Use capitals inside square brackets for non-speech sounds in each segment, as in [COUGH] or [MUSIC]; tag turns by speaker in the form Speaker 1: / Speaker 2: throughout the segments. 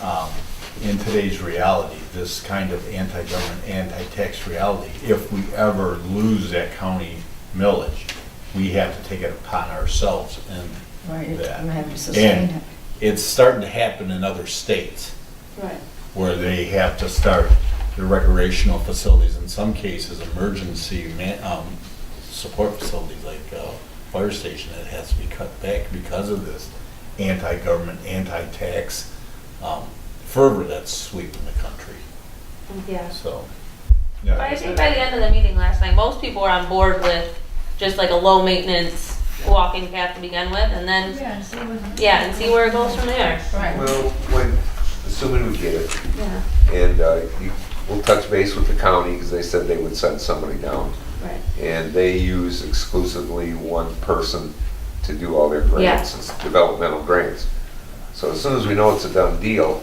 Speaker 1: um, in today's reality, this kind of anti-government, anti-tax reality, if we ever lose that county millage, we have to take it upon ourselves and
Speaker 2: Right, you
Speaker 1: that.
Speaker 2: have to sustain
Speaker 1: And
Speaker 2: it.
Speaker 1: it's starting to happen in other states
Speaker 3: Right.
Speaker 1: where they have to start their recreational facilities, in some cases, emergency man, um, support facilities like, uh, fire station that has to be cut back because of this anti-government, anti-tax, um, fervor that's sweeping the country,
Speaker 3: Yeah.
Speaker 1: so.
Speaker 4: But I think by the end of the meeting last night, most people were on board with just like a low maintenance walking path to begin with, and then,
Speaker 2: Yeah, see what-
Speaker 4: yeah, and see where it goes from there.
Speaker 2: Right.
Speaker 5: Well, when, assuming we get it,
Speaker 4: Yeah,
Speaker 5: and uh, you- we'll touch base with the county, because they said they would send somebody down.
Speaker 4: right.
Speaker 5: And they use exclusively one person to do all their grants, it's developmental grants. So as soon as we know it's a done deal,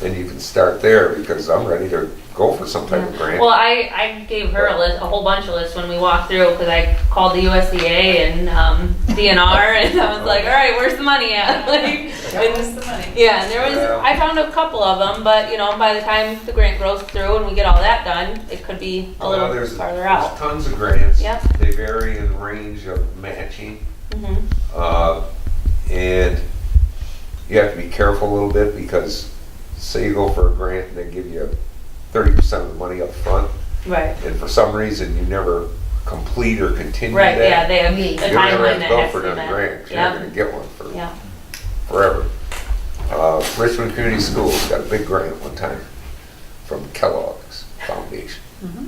Speaker 5: then you can start there, because I'm ready to go for some type of grant.
Speaker 4: Well, I, I gave her a list, a whole bunch of lists when we walked through, because I called the USDA and, um, DNR, [LAUGHS] and I was like, all right, where's the money at? [LAUGHS] Like, and- Yeah, and there was,
Speaker 5: Yeah.
Speaker 4: I found a couple of them, but, you know, by the time the grant grows through and we get all that done, it could be a
Speaker 5: Well,
Speaker 4: little
Speaker 5: Uh, Oh, there's-
Speaker 4: farther out.
Speaker 5: There's tons of grants.
Speaker 4: Yep.
Speaker 5: They vary in range of matching.
Speaker 4: Mhm.
Speaker 5: Uh, And you have to be careful a little bit because say you go for a grant and they give you thirty percent of the money up front,
Speaker 4: Right,
Speaker 5: and for some reason you never complete or continue
Speaker 4: right, yeah,
Speaker 5: that.
Speaker 4: they have
Speaker 2: Yeah.
Speaker 4: a
Speaker 5: You're
Speaker 4: time
Speaker 5: never gonna
Speaker 4: limit.
Speaker 5: go
Speaker 4: has
Speaker 5: for
Speaker 4: to be
Speaker 5: another
Speaker 4: met.
Speaker 5: grant. You're not gonna
Speaker 4: Yeah,
Speaker 5: get one for
Speaker 4: yeah.
Speaker 5: forever. Uh, Richmond Community Schools got a big grant one time from Kellogg's Foundation.
Speaker 2: Mm-hmm.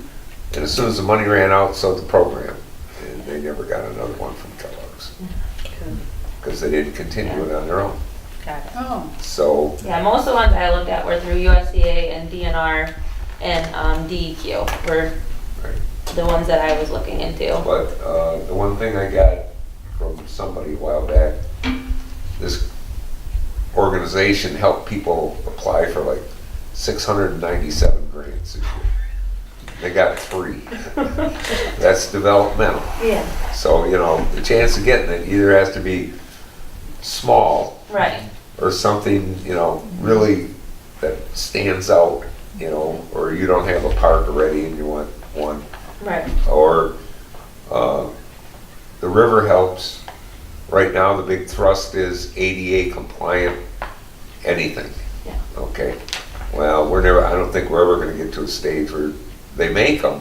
Speaker 5: And as soon as the money ran out, so did the program, and they never got another one from Kellogg's. Because they didn't continue it on their own.
Speaker 4: Got it.
Speaker 2: Oh,
Speaker 5: So,
Speaker 4: Yeah, most of the ones I looked at were through USDA and DNR and um, DEQ were
Speaker 5: right.
Speaker 4: the ones that I was looking into.
Speaker 5: but uh, the one thing I got from somebody a while back, this organization helped people apply for like 697 grants. this year. They got three. That's developmental.
Speaker 4: [LAUGHS] Yeah.
Speaker 5: So, you know, the chance of getting it either has to be small
Speaker 4: Right,
Speaker 5: or something, you know, really that stands out, you know, or you don't have a park already and you want one,
Speaker 4: right,
Speaker 5: or uh, the river helps. Right now, the big thrust is ADA compliant, anything.
Speaker 4: Yeah.
Speaker 5: Okay, well, we're never, I don't think we're ever gonna get to a stage where they make them,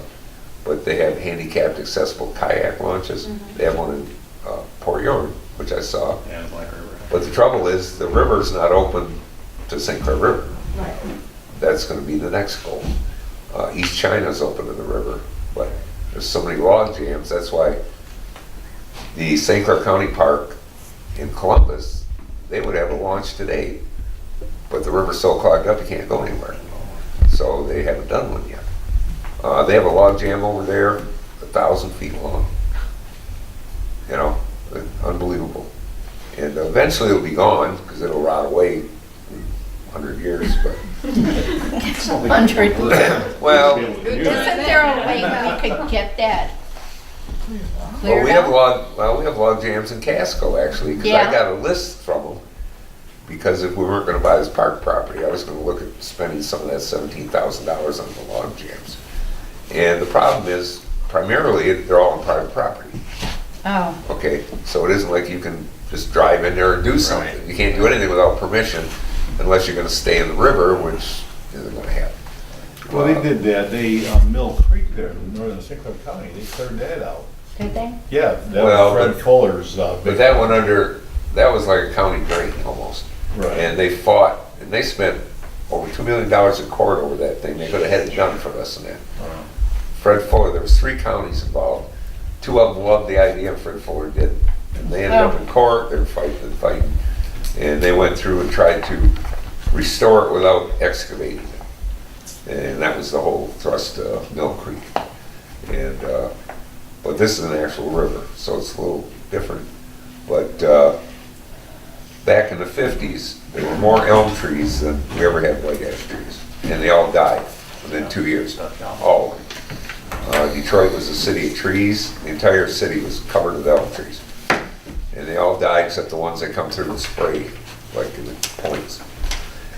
Speaker 5: but they have handicapped accessible kayak launches. They have one in uh, Port York, which I saw.
Speaker 1: And Black River.
Speaker 5: But the trouble is, the river's not open to St. Clair River.
Speaker 4: right.
Speaker 5: That's gonna be the next goal. Uh, East China's open to the river, but there's so many log jams, that's why the St. Clair County Park in Columbus, they would have a launch today, but the river's so clogged up, you can't go anywhere. So they haven't done one yet. Uh, they have a log jam over there, a thousand feet long. You know, unbelievable. And eventually it'll be gone, because it'll rot away in hundred years, but
Speaker 2: hundred.
Speaker 5: [COUGHS] Well-
Speaker 2: Isn't there a way we could get that?
Speaker 5: Well,
Speaker 2: cleared
Speaker 5: we have
Speaker 2: up?
Speaker 5: log, well, we have log jams in Casco, actually, because
Speaker 2: Yeah.
Speaker 5: I got a list from them. Because if we weren't gonna buy this park property, I was gonna look at spending some of that seventeen thousand dollars on the log jams. And the problem is primarily, they're all on private property,
Speaker 2: Oh,
Speaker 5: okay? So it isn't like you can just drive in there and do something. You can't do anything without permission unless you're gonna stay in the river, which isn't gonna happen. Uh,
Speaker 1: Well, they did that, they, um, Mill Creek there, in northern St. Clair County, they cleared that out.
Speaker 2: did they?
Speaker 1: Yeah, that
Speaker 5: Well,
Speaker 1: was Fred
Speaker 5: but-
Speaker 1: Fuller's, uh.
Speaker 5: But that went under, that was like a county drain almost.
Speaker 1: Right.
Speaker 5: And they fought, and they spent over two million dollars in court over that thing. They could have had it done for less than that.
Speaker 1: Uh,
Speaker 5: Fred Fuller, there was three counties involved. Two of them loved the idea, and Fred Fuller didn't. And they ended up in court, they were fighting and fighting. And they went through and tried to restore it without excavating it. And that was the whole thrust of Mill Creek. And, uh, but this is an actual river, so it's a little different. But, uh, back in the fifties, there were more elm trees than we ever had white ash trees. And they all died within two years, all of them. Uh, Detroit was a city of trees. The entire city was covered with elm trees. And they all died except the ones that come through and spray, like in the points.